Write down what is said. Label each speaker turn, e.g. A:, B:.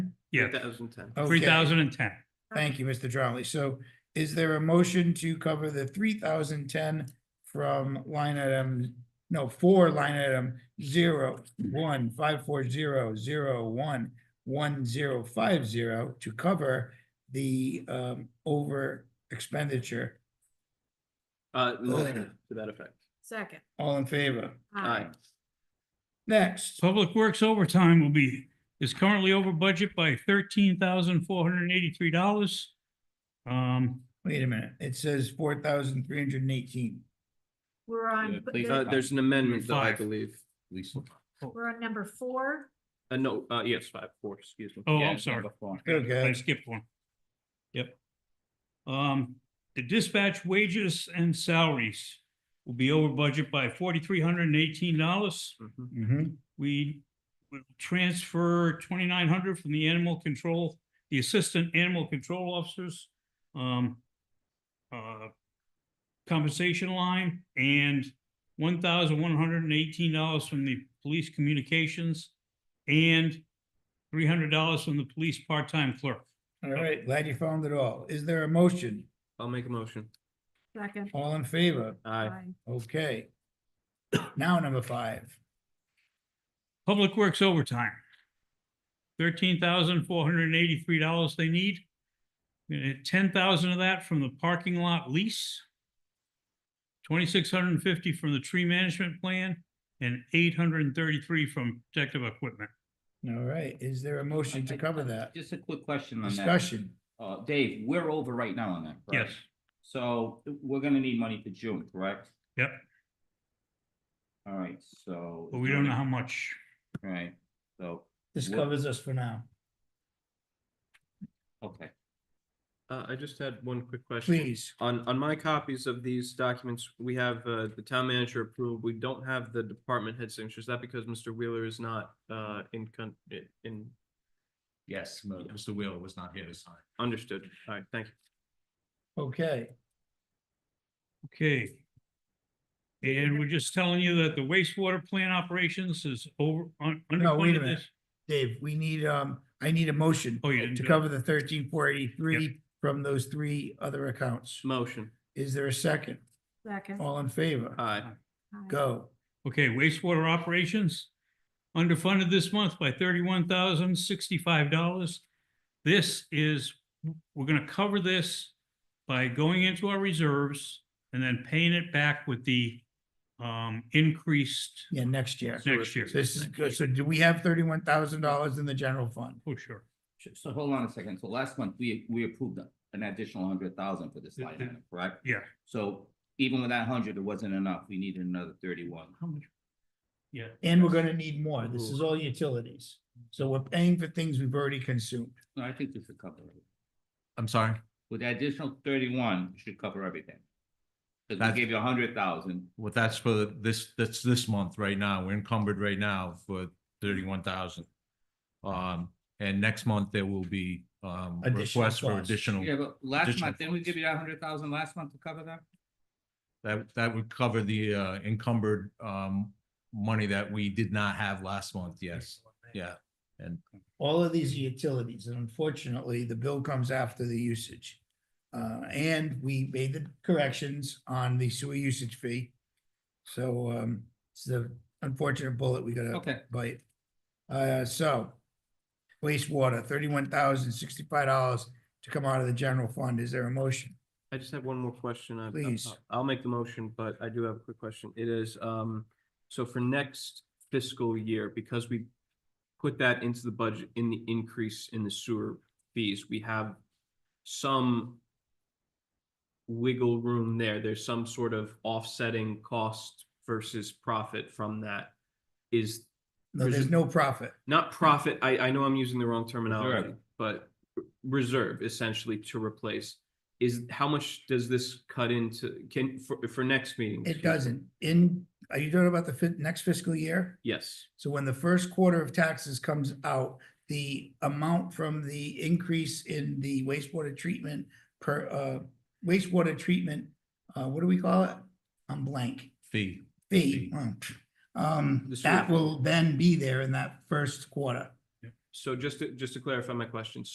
A: Yeah,
B: thousand ten.
A: three
C: Okay.
A: thousand and ten.
C: Thank you, Mr. Jolly. So is there a motion to cover the three thousand ten from line item, no, for line item zero, one, five, four, zero, zero, one, one, zero, five, zero to cover the um over expenditure?
B: Uh,
C: Oh.
B: to that effect.
D: Second.
C: All in favor?
B: Aye.
C: Next,
A: Public Works overtime will be, is currently over budget by thirteen thousand four hundred and eighty-three dollars. Um,
C: wait a minute, it says four thousand three hundred and eighteen.
D: We're on, Um, but
B: Uh,
D: the-
B: there's an amendment though, I
A: Five.
B: believe.
D: we're on number four.
B: Uh, no, uh, yes, five, four, excuse me.
A: Oh,
B: Yeah,
A: I'm
B: it's
A: sorry.
B: number four.
A: I
C: Okay,
A: skipped one. Yep. Um, the dispatch wages and salaries will be over budget by forty-three hundred and eighteen dollars.
B: Mhm.
C: mhm,
A: We will transfer twenty-nine hundred from the animal control, the assistant animal control officers. Um. uh, Compensation line and one thousand one hundred and eighteen dollars from the police communications. And three hundred dollars from the police part-time clerk.
C: all right, glad you found it all. Is there a motion?
B: I'll make a motion.
D: Second.
C: All in favor?
B: Aye.
D: Aye.
C: Okay. Now number five.
A: Public Works overtime. Thirteen thousand four hundred and eighty-three dollars they need. ten thousand of that from the parking lot lease. Twenty-six hundred and fifty from the tree management plan and eight hundred and thirty-three from protective equipment.
C: All right, is there a motion to cover that?
E: Just a quick question on that.
C: Discussion,
E: Uh, Dave, we're over right now on that.
A: Yes,
E: correct? So we're gonna need money for June, correct?
A: Yep.
E: All right, so.
A: but we don't know how much.
E: Right, so,
C: this
E: What-
C: covers us for now.
E: okay,
B: Uh, I just had one quick question.
C: Please,
B: On, on my copies of these documents, we have, uh, the town manager approved. We don't have the department head signature. Is that because Mr. Wheeler is not, uh, in con, i- in,
F: Yes, no, Mr. Wheeler was not here this time.
B: understood? All right, thank you.
C: okay,
A: Okay. And we're just telling you that the wastewater plant operations is over, un-
C: No, wait a
A: underfunded
C: minute.
A: this.
C: Dave, we need, um, I need a motion
A: Oh, you didn't
C: to
A: do it.
C: cover the thirteen four eighty-three from those three other accounts.
B: Motion.
C: Is there a second?
D: Second.
C: All in favor?
B: Aye.
D: Aye.
C: Go.
A: Okay, wastewater operations, underfunded this month by thirty-one thousand sixty-five dollars. This is, we're gonna cover this by going into our reserves and then paying it back with the um increased
C: Yeah, next year.
A: next year.
C: So This is good. So do we have thirty-one thousand dollars in the general fund?
A: Oh, sure.
E: Sh- so hold on a second, so last month, we, we approved an additional hundred thousand for this line item, correct?
A: Yeah.
E: So even with that hundred, it wasn't enough, we needed another thirty-one.
A: How much? Yeah.
C: And we're gonna need more. This is all utilities. So we're paying for things we've already consumed.
E: No, I think this should cover it,
F: I'm sorry.
E: with the additional thirty-one, it should cover everything. Cause
F: That's-
E: we gave you a hundred thousand,
F: Well, that's for this, that's this month right now. We're encumbered right now for thirty-one thousand. Um, and next month there will be, um,
C: Additional
F: requests for
C: costs.
E: yeah,
F: additional,
E: but last
F: additional
E: month, didn't we give
F: funds.
E: you that um hundred thousand last month to cover that?
F: that, that would cover the, uh, encumbered, um, money that we did not have last month, yes. Yeah,
C: all of these are utilities, and unfortunately, the bill comes after the usage. Uh, and we made the corrections on the sewer usage fee. So, um, it's the unfortunate bullet we gotta
E: Okay.
C: bite. Uh, so wastewater, thirty-one thousand sixty-five dollars to come out of the general fund. Is there a motion?
B: I just have one more question. I- I-
C: Please.
B: I'll make the motion, but I do have a quick question. It is, um, so for next fiscal year, because we put that into the budget in the increase in the sewer fees, we have some wiggle room there. There's some sort of offsetting cost versus profit from that. Is
C: No, there's
B: Presu-
C: no profit.
B: not profit, I, I know I'm using the wrong terminology,
E: Reserve.
B: but r- reserve essentially to replace. Is, how much does this cut into, can, for, for next meeting?
C: It doesn't. In, are you talking about the fi- next fiscal year?
B: Yes,
C: So when the first quarter of taxes comes out, the amount from the increase in the wastewater treatment per, uh, wastewater treatment, uh, what do we call it? I'm blank.
F: fee.
C: Fee.
F: Fee.
C: mm. Um,
B: The sewer
C: that
B: fee.
C: will then be there in that first quarter.
B: So just to, just to clarify my question,